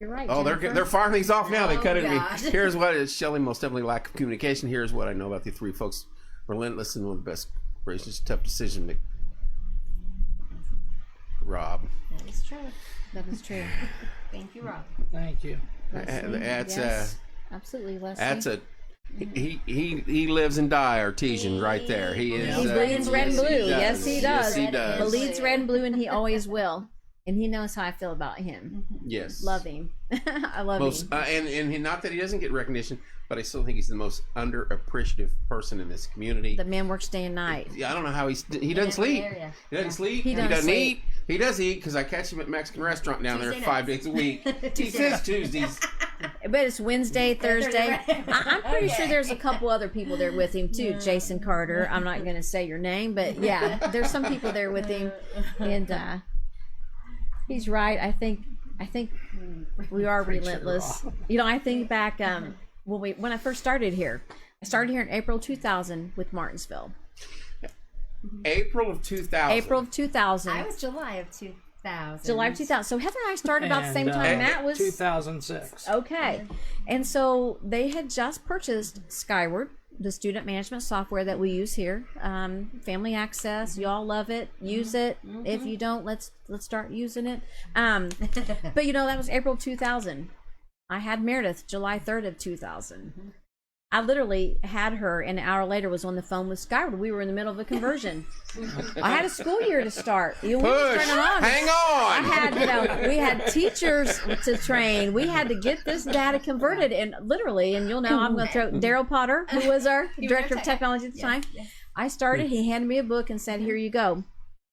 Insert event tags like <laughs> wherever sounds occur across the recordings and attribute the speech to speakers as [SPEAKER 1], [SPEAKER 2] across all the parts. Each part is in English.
[SPEAKER 1] You're right.
[SPEAKER 2] Oh, they're
[SPEAKER 1] Jennifer.
[SPEAKER 2] they're firing these off now. They
[SPEAKER 1] Oh,
[SPEAKER 2] cut it.
[SPEAKER 1] God.
[SPEAKER 2] to me. <laughs> Here's what is Shelley most definitely lack of communication. Here's what I know about the three folks: relentless and one of the best gracious, tough decision. Make. Rob,
[SPEAKER 1] That is true. That is
[SPEAKER 2] <laughs>
[SPEAKER 1] true. Thank you, Rob.
[SPEAKER 3] Thank you.
[SPEAKER 1] Leslie,
[SPEAKER 2] that's, uh,
[SPEAKER 1] yes. absolutely Leslie.
[SPEAKER 2] that's a he he he lives and die artesian right there. He is.
[SPEAKER 1] He
[SPEAKER 2] uh,
[SPEAKER 1] bleeds red and
[SPEAKER 2] yes, he
[SPEAKER 1] blue. Yes,
[SPEAKER 2] does.
[SPEAKER 1] he
[SPEAKER 2] Yes,
[SPEAKER 1] does.
[SPEAKER 2] he does.
[SPEAKER 1] Bleeds red and blue, and he always will. And he knows how I feel about him. <laughs>
[SPEAKER 2] Yes,
[SPEAKER 1] Love him. <laughs> I love
[SPEAKER 2] Most
[SPEAKER 1] him.
[SPEAKER 2] uh, and and he, not that he doesn't get recognition, but I still think he's the most underappreciative person in this community.
[SPEAKER 1] The man works day and night.
[SPEAKER 2] Yeah, I don't know how he's he doesn't
[SPEAKER 1] <laughs>
[SPEAKER 2] sleep.
[SPEAKER 4] area.
[SPEAKER 2] He doesn't sleep. He,
[SPEAKER 1] doesn't
[SPEAKER 2] doesn't
[SPEAKER 1] sleep.
[SPEAKER 2] eat. He does eat because I catch him at Mexican restaurant down there
[SPEAKER 4] Tuesday
[SPEAKER 2] five
[SPEAKER 4] nights.
[SPEAKER 2] days a
[SPEAKER 1] <laughs>
[SPEAKER 2] week. he says Tuesdays.
[SPEAKER 1] But it's Wednesday, Oh, Thursday. I, <laughs> I'm pretty sure there's a couple other people there with him too. Jason Carter. I'm not going to say your name, but yeah, there's some people there with him, and uh, he's right. I think I think we are relentless. You know, I think back um, when we when I first started here. I started here in April 2000 with Martinsville.
[SPEAKER 2] April of two thousand.
[SPEAKER 1] April of 2000.
[SPEAKER 4] I was July of 2000.
[SPEAKER 1] July of 2000. So Heather and I started about the
[SPEAKER 3] And,
[SPEAKER 1] same
[SPEAKER 3] uh,
[SPEAKER 1] time. Matt was Oh.
[SPEAKER 3] 2006.
[SPEAKER 1] Okay. And so they had just purchased Skyward, the student management software that we use here. Um, family access, y'all love it. Use it. If you don't, let's let's start using it. Um, but you know that was April 2000. I had Meredith July 3rd of 2000. I literally had her and an hour later was on the phone with Skyward. We were in the middle of a conversion. I had a school year to start. You know, we were
[SPEAKER 2] Push.
[SPEAKER 1] starting on.
[SPEAKER 2] Hang
[SPEAKER 1] I
[SPEAKER 2] on.
[SPEAKER 1] had, you know, we had
[SPEAKER 4] <laughs>
[SPEAKER 1] teachers to train. We had to get this data converted, and literally, and you'll know, I'm going to throw Daryl Potter, who was our
[SPEAKER 4] Mm-hmm. <laughs> You were
[SPEAKER 1] director of
[SPEAKER 4] tech-
[SPEAKER 1] technology at the time. I started. He handed me a book and said, "Here you go."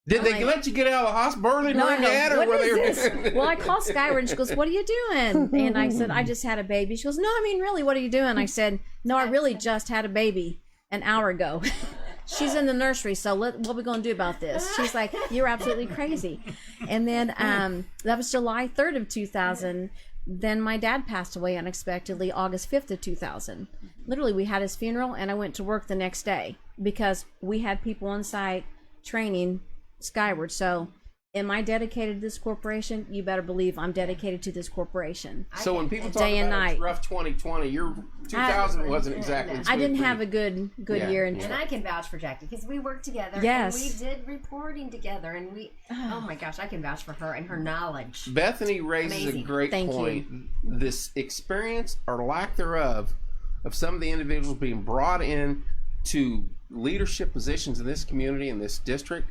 [SPEAKER 2] Did they
[SPEAKER 1] like-
[SPEAKER 2] let you get out of the hospital early,
[SPEAKER 1] No, I
[SPEAKER 2] mom,
[SPEAKER 1] go,
[SPEAKER 2] dad, or were
[SPEAKER 1] what
[SPEAKER 2] they?
[SPEAKER 1] is this? Well, I called Skyward and she goes, What are you doing? And I said, I just had a baby. She goes, No, I mean, really, what are you doing? I said, No, I really just had a baby an hour ago. <laughs> She's in the nursery, so let, what we going to do about this? She's like, You're absolutely crazy. And then um, that was July 3rd of 2000. Then my dad passed away unexpectedly August 5th of 2000. Literally, we had his funeral, and I went to work the next day because we had people on site training Skyward. So, am I dedicated to this corporation? You better believe I'm dedicated to this corporation.
[SPEAKER 2] <laughs> so when people talk
[SPEAKER 1] Day and
[SPEAKER 2] about it's
[SPEAKER 1] night.
[SPEAKER 2] rough 2020, your 2000 wasn't exactly.
[SPEAKER 1] I didn't
[SPEAKER 2] smooth
[SPEAKER 1] have a
[SPEAKER 2] for
[SPEAKER 1] good good
[SPEAKER 2] Yeah,
[SPEAKER 1] year in
[SPEAKER 2] yeah.
[SPEAKER 4] And I can vouch for Jackie because we worked together.
[SPEAKER 1] Yes.
[SPEAKER 4] And we did reporting together. And we, oh my gosh, I can vouch for her and her knowledge.
[SPEAKER 2] you. Bethany raises
[SPEAKER 4] Amazing.
[SPEAKER 2] a great
[SPEAKER 1] Thank you.
[SPEAKER 2] point. This experience or lack thereof of some of the individuals being brought in to leadership positions in this community in this district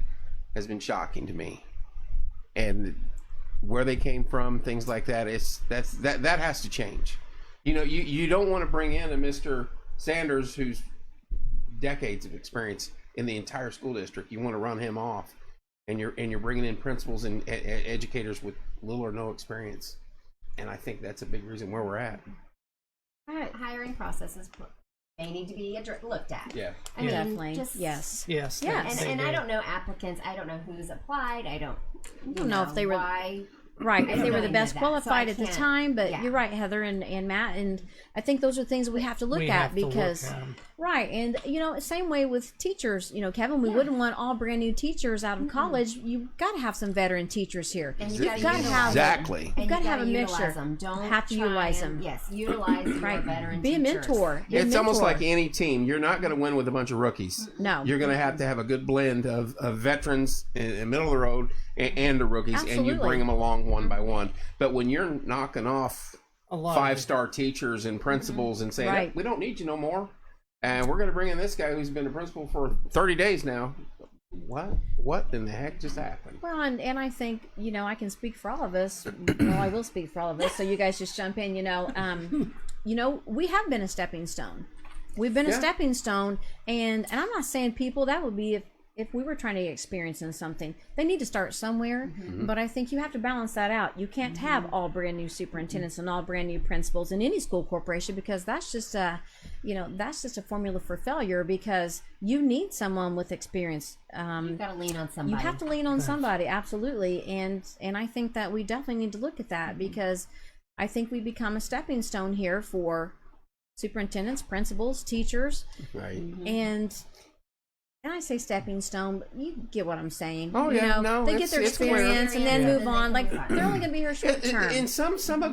[SPEAKER 2] has been shocking to me. and where they came from, things like that. It's that's that that has to change. You know, you you don't want to bring in a Mr. Sanders who's decades of experience in the entire school district. You want to run him off, and you're and you're bringing in principals and e- e- educators with little or no experience. And I think that's a big reason where we're at.
[SPEAKER 4] Hi- Hiring processes, they need to be addre- looked at.
[SPEAKER 2] Yeah.
[SPEAKER 4] I mean,
[SPEAKER 1] Definitely.
[SPEAKER 4] just-
[SPEAKER 1] yes.
[SPEAKER 3] Yes. they-
[SPEAKER 1] Yes.
[SPEAKER 4] And,
[SPEAKER 3] they
[SPEAKER 4] and I
[SPEAKER 3] did.
[SPEAKER 4] don't know applicants. I don't know who's applied. I don't, you
[SPEAKER 1] don't know if they were-
[SPEAKER 4] why.
[SPEAKER 1] Right.
[SPEAKER 4] I
[SPEAKER 1] If they
[SPEAKER 4] don't
[SPEAKER 1] were
[SPEAKER 4] know
[SPEAKER 1] the
[SPEAKER 4] any
[SPEAKER 1] best
[SPEAKER 4] of that, so I
[SPEAKER 1] qualified at the
[SPEAKER 4] can't-
[SPEAKER 1] time, but
[SPEAKER 4] yeah.
[SPEAKER 1] you're right, Heather and, and Matt, and I think those are things we have to look
[SPEAKER 3] We
[SPEAKER 1] at
[SPEAKER 3] have to look
[SPEAKER 1] because
[SPEAKER 3] at 'em.
[SPEAKER 1] Right, and you know, same way with teachers. You know, Kevin, we wouldn't want all brand new teachers out of college. You got to have some veteran teachers here.
[SPEAKER 4] And you gotta
[SPEAKER 1] gotta
[SPEAKER 4] utilize
[SPEAKER 1] have-
[SPEAKER 2] exactly.
[SPEAKER 4] And you
[SPEAKER 1] gotta have a
[SPEAKER 4] utilize
[SPEAKER 1] mixture.
[SPEAKER 4] Them. Don't
[SPEAKER 1] Have to
[SPEAKER 4] try
[SPEAKER 1] utilize
[SPEAKER 4] and-
[SPEAKER 1] them.
[SPEAKER 4] Yes,
[SPEAKER 1] <clears throat>
[SPEAKER 4] utilize your
[SPEAKER 1] Right.
[SPEAKER 4] veteran
[SPEAKER 1] Be a
[SPEAKER 4] teachers.
[SPEAKER 1] mentor. Be a
[SPEAKER 2] It's almost
[SPEAKER 1] mentor.
[SPEAKER 2] like any team. You're not going to win with a bunch of rookies.
[SPEAKER 1] No.
[SPEAKER 2] You're going to have to have a good blend of, of veterans and, and middle of the road and, and the rookies, and you
[SPEAKER 1] Absolutely.
[SPEAKER 2] bring them along one by one. But when you're knocking off
[SPEAKER 3] A lot of
[SPEAKER 2] five star teachers and principals and saying,
[SPEAKER 1] Right.
[SPEAKER 2] we don't need you no more, and we're going to bring in this guy who's been a principal for 30 days now. What? What in the heck just happened?
[SPEAKER 1] Well, and, and I think, you know, I can speak for all of us. <clears throat> Well, I will speak for all of us. So you guys just jump in, you know. Um, you know, we have been a stepping stone. We've been a
[SPEAKER 2] Yeah.
[SPEAKER 1] stepping stone. And, and I'm not saying people, that would be if, if we were trying to get experience in something, they need to start somewhere. But I think you have to balance that out. You can't have all brand new superintendents and all brand new principals in any school corporation because that's just a, you know, that's just a formula for failure because you need someone with experience. Um,
[SPEAKER 4] You've got to lean on
[SPEAKER 1] you
[SPEAKER 4] somebody.
[SPEAKER 1] have to lean on somebody absolutely and and i think that we definitely need to look at
[SPEAKER 2] Mm-hmm.
[SPEAKER 1] that because i think we become a stepping stone here for superintendents principals teachers
[SPEAKER 2] Right.
[SPEAKER 1] and and i say stepping stone but you get what i'm saying
[SPEAKER 2] Oh,
[SPEAKER 1] you know
[SPEAKER 2] yeah, no,
[SPEAKER 1] they get
[SPEAKER 2] it's-
[SPEAKER 1] their
[SPEAKER 2] it's where-
[SPEAKER 1] experience and then
[SPEAKER 4] Yeah.
[SPEAKER 1] move on like they're only going to be here short
[SPEAKER 2] In-
[SPEAKER 1] term
[SPEAKER 2] In some some of